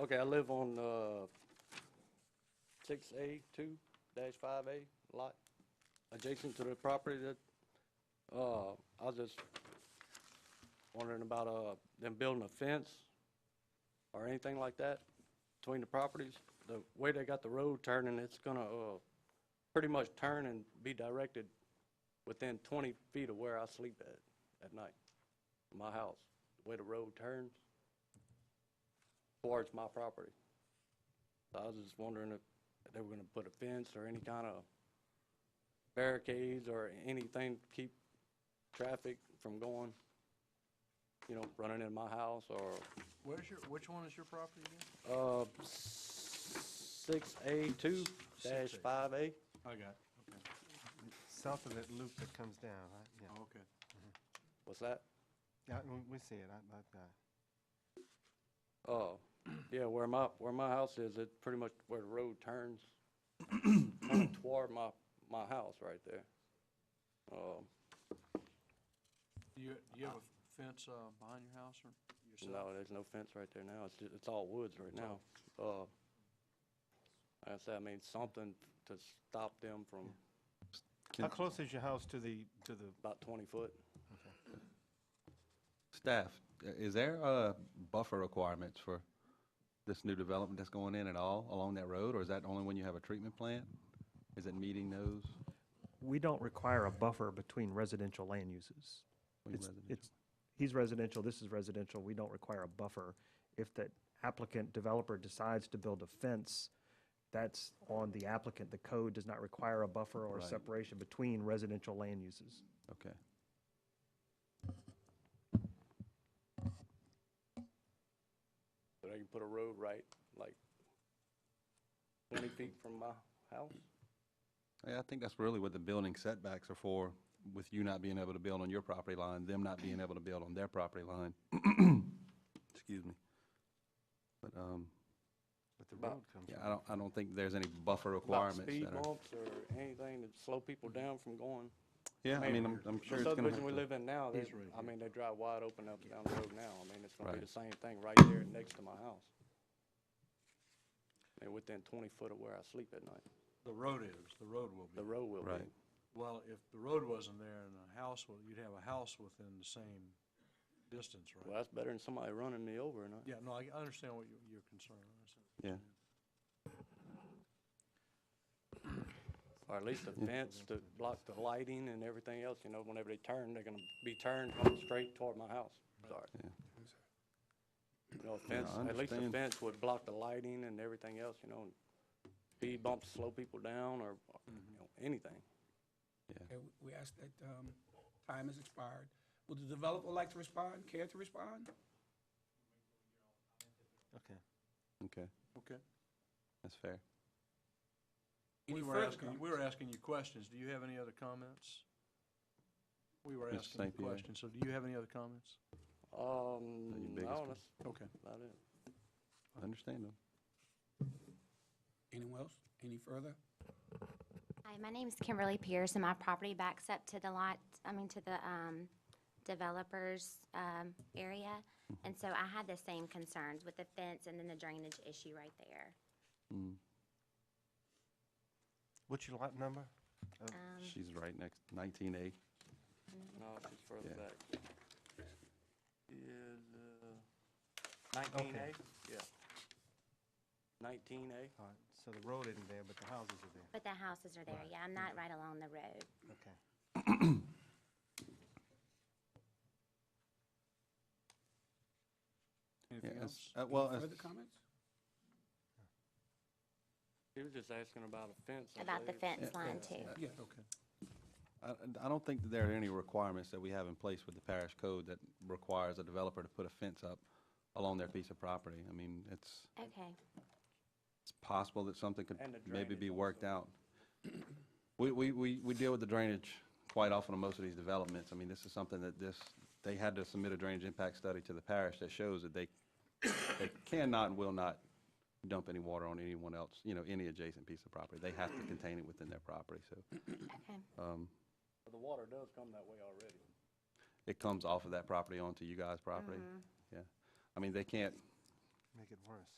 Okay, I live on, uh, six A two dash five A lot, adjacent to the property that, uh, I was just wondering about, uh, them building a fence or anything like that between the properties. The way they got the road turning, it's gonna, uh, pretty much turn and be directed within twenty feet of where I sleep at, at night, my house, the way the road turns towards my property. So I was just wondering if they were gonna put a fence or any kind of barricades or anything to keep traffic from going, you know, running in my house or, Where's your, which one is your property again? uh, six A two dash five A. I got it, okay. South of that loop that comes down, right? Yeah. Oh, Okay. What's that? Yeah, we- we see it, I, uh, I, I- Oh, yeah, where my, where my house is, it's pretty much where the road turns toward my, my house right there. Um, Do you, do you have a fence uh, behind your house or yourself? No, there's no fence right there now. It's, ju- it's all woods right now. Uh, like I said, I mean, something to stop them from How close is your house to the, to the, about twenty foot. Staff, i- is there uh, buffer requirements for this new development that's going in at all along that road, or is that only when you have a treatment plant? Is it meeting those? We don't require a buffer between residential land uses. Between It's- residential. it's- He's residential, this is residential, we don't require a buffer. If the applicant developer decides to build a fence, that's on the applicant. The code does not require a buffer or a Right. separation between residential land uses. Okay. But I can put a road right, like twenty feet from my house. Yeah, I think that's really what the building setbacks are for, with you not being able to build on your property line, them not being able to build on their property line. Excuse me. But, um, but the About- road comes yeah, down? I don't, I don't think there's any buffer About requirements speed that are. bumps or anything to slow people down from going. Yeah, I mean, I'm, Mm-hmm. I'm the sure it's gonna have subdivision we to- live in now, they, He's right I mean, they drive wide open up and down the road now. I mean, it's gonna be Right. the same thing right there next to my house. And within twenty foot of where I sleep at night. The road is, the road will The be. road will be. Right. Well, if the road wasn't there and a house, wa- you'd have a house within the same distance, Well, right? that's better than somebody running me over, and I, Yeah, no, I I understand what your, your concern is. Yeah. or at least a fence to block the lighting and everything else, you know, whenever they turn, they're gonna be turned going straight toward my house. Sorry. Yeah. You know, a fence, I at least a understand. fence would block the lighting and everything else, you know, and speed bumps slow people down or, you know, anything. Okay, we- we ask that, um, time has expired. Would the developer like to respond, care to respond? Okay. Okay, Okay. that's fair. Any We were further asking, we were asking you questions. Do you have any other comments? We were Mr. asking you St. Pierre. questions, so do you have any other comments? Um, biggest no, one. that's Okay. about it. I understand them. Anyone else? Any further? Hi, my name is Kimberly Pierce, and my property backs up to the lot, I mean, to the um, developer's um, area. And so I had the same concerns with the fence and then the drainage issue right there. Mm. What's your lot number? Um, She's right next, 19A. No, she's further Yeah. back. Is, uh, nineteen A? Yeah. Nineteen A? All right, so the road isn't there, but the houses are there, But the houses are there, yeah, I'm not right along the road. okay. Anything Yeah, else? as- uh, Well, as- Further comments? He was just asking about a fence. I About the believe. fence line too. uh, Yes. Okay. I I don't think that there are any requirements that we have in place with the parish code that requires a developer to put a fence up along their piece of property. I mean, it's, Okay, it's possible that something And the could maybe be drainage worked out. We, we, we we deal with the drainage quite often on most of these developments. I mean, this is something that this, they had to submit a drainage impact study to the parish that shows that they, they cannot and will not dump any water on anyone else, you know, any adjacent piece of property. They have to contain it within their property, so. okay, Um, The water does come that way already. it comes off of that property onto you guys' property. Yeah. I mean, they can't, Make it worse.